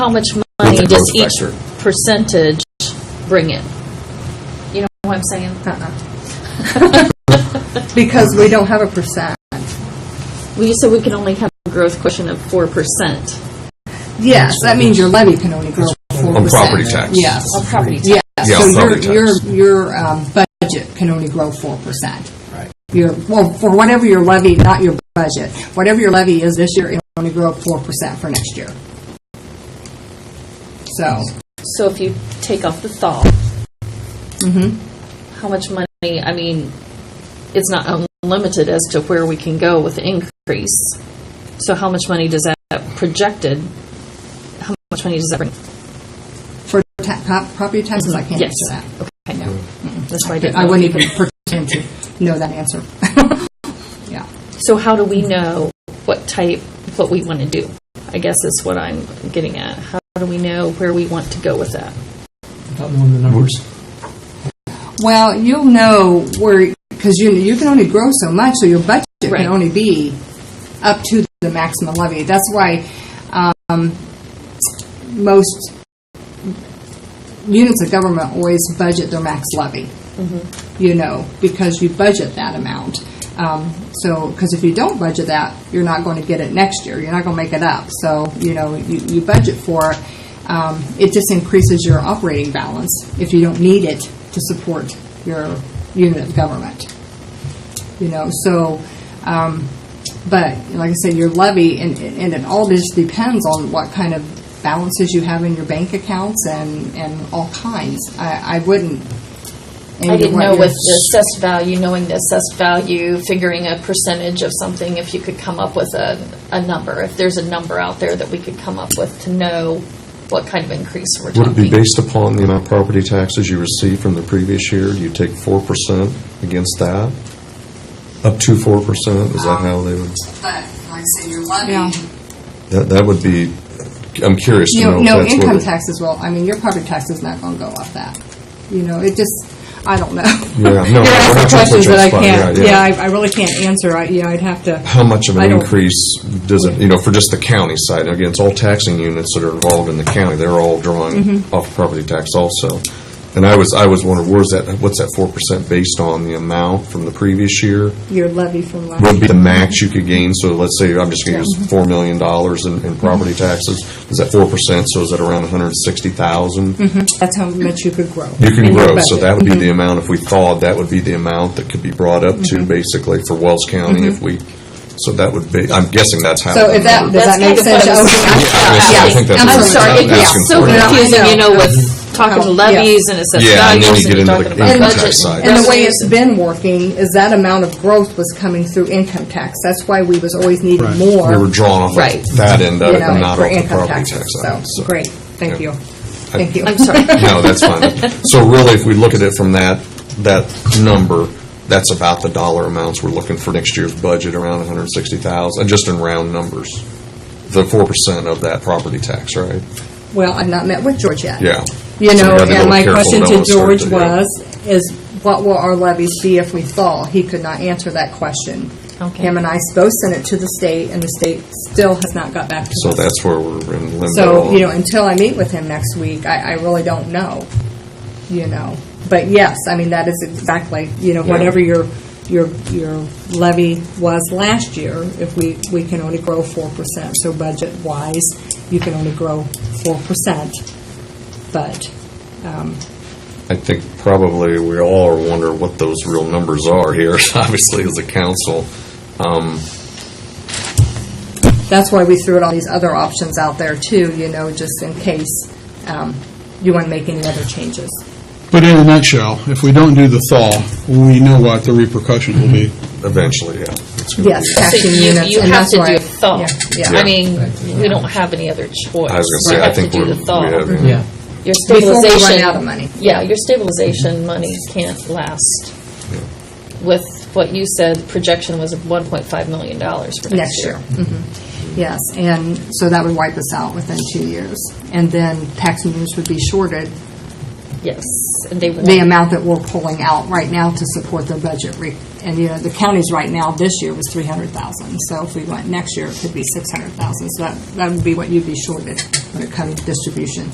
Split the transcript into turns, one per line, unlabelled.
how much money
the
does
growth
each
factor.
percentage bring in? You know what I'm saying?
Because we don't have a percent.
We, so we can only have a growth question of four percent
Yes, that means your levy can only grow four percent.
On property tax.
Yes,
on property tax.
yes.
Yeah, on
So your,
property
your,
tax.
your um, budget can only grow four percent.
Right.
Your, well, for whatever your levy, not your budget, whatever your levy is this year, it'll only grow four percent for next year. So,
So if you take off the thaw,
mm-hmm.
how much money, I mean, it's not unlimited as to where we can go with the increase. So how much money does that projected, how much money does that bring?
for ta- pro- property taxes, I can't
Yes.
answer that.
I know. That's why I
I
didn't.
wouldn't even pretend to know that answer. Yeah.
So how do we know what type, what we want to do? I guess is what I'm getting at. How do we know where we want to go with that?
Not knowing the numbers.
Well, you'll know where, because you, you can only grow so much, so your budget
Right.
can only be up to the maximum levy. That's why um, most units of government always budget their max levy, you know, because you budget that amount. Um, so, because if you don't budget that, you're not going to get it next year. You're not going to make it up. So, you know, you, you budget for it. Um, it just increases your operating balance if you don't need it to support your unit of government. You know, so, um, but like I said, your levy, and, and it all just depends on what kind of balances you have in your bank accounts and, and all kinds. I, I wouldn't.
I didn't know with
this.
the assessed value, knowing the assessed value, figuring a percentage of something, if you could come up with a, a number, if there's a number out there that we could come up with to know what kind of increase we're
Would it be
talking.
based upon the amount of property taxes you received from the previous year? Do you take 4% against that? Up to 4%? Is that how they would?
But, like I say, your levy.
Yeah.
That, that would be, I'm curious to
You
know
know,
if
no,
that's what.
income
it-
taxes will, I mean, your property tax is not gonna go up that. You know, it just, I don't know.
no, we're
You're
not gonna
asking
put
questions
you on
that
the
I
spot.
can't,
Yeah, yeah.
yeah, I, I really can't answer, I, yeah, I'd have to.
How much of
I
an
don't-
increase does it, you know, for just the county side? Again, it's all taxing units that are involved in the county. They're all drawing
Mm-hmm.
off property tax also. And I was, I was wondering, where's that, what's that 4% based on the amount from the previous year?
Your levy from last.
would be the max you could gain, so let's say, I'm just going to use $4 million in, in property
Mm-hmm.
taxes, is that 4%, so is that around 160,000?
That's how much you could grow.
You can
Mm-hmm. in
grow,
your
so
budget. Mm-hmm.
that would be the amount, if we thawed, that would be the amount that could be brought up
Mm-hmm.
to, basically, for Wells County, if we, so that would be, I'm guessing that's how.
So if that, does
That's
that make
kind of
sense?
what I was-
I think that's
Yeah,
what
I'm
I'm
sorry, it
asking
gets so
for.
confusing, you know, with talking to
Yeah.
levies and assessed
Yeah, and then you
values
get
and
into
talking
the
about
income
budget.
tax side.
And the way it's been working is that amount of growth was coming through income tax. That's why we was always needing more.
We were drawn off
Right.
of that end of
you
it,
know,
and not
for
off the
income
property
taxes.
tax
So,
side. so.
great, thank
yeah.
you, thank you.
I'm sorry.
No, that's fine. So really, if we look at it from that, that number, that's about the dollar amounts we're looking for next year's budget, around 160,000, just in round numbers. The 4% of that property tax, right?
Well, I've not met with George yet.
Yeah.
You
So we
know,
gotta be a little
and my
careful,
question
don't
to
wanna start
George
to- yeah.
was, is what will our levies be if we thaw? He could not answer that question.
Okay.
Him and I both sent it to the state, and the state still has not got back to
So
us.
that's where we're in limbo.
So, you know, until I meet with him next week, I, I really don't know, you know. But yes, I mean, that is exactly, you know,
Yeah.
whatever your, your, your levy was last year, if we, we can only grow four percent. So budget-wise, you can only grow four percent. But, um,
I think probably we all are wondering what those real numbers are here, obviously, as a council. Um,
that's why we threw out all these other options out there too, you know, just in case, um, you want to make any other changes.
But in a nutshell, if we don't do the thaw, we know what the repercussions will be.
Eventually, yeah. It's gonna
Yes,
be-
So
taxing
you,
units,
you
and
have
that's
to
why.
do a thaw.
Yeah, yeah.
I mean, we don't have any other choice.
I
We
was going to say, I
have to
think
do
we're,
the thaw.
we have,
Yeah.
Your
Before we
stabilization.
run out of money.
Yeah, your stabilization money can't last. With what you said, the projection was of $1.5 million for
Next year. Mhm. Yes, and so that would wipe us out within two years. And then taxing units would be shorted
Yes, and they
the
want,
amount that we're pulling out right now to support their budget. re- And, you know, the county's right now, this year was 300,000. So if we went next year, it could be 600,000. So that, that would be what you'd be shorted when it comes to distribution.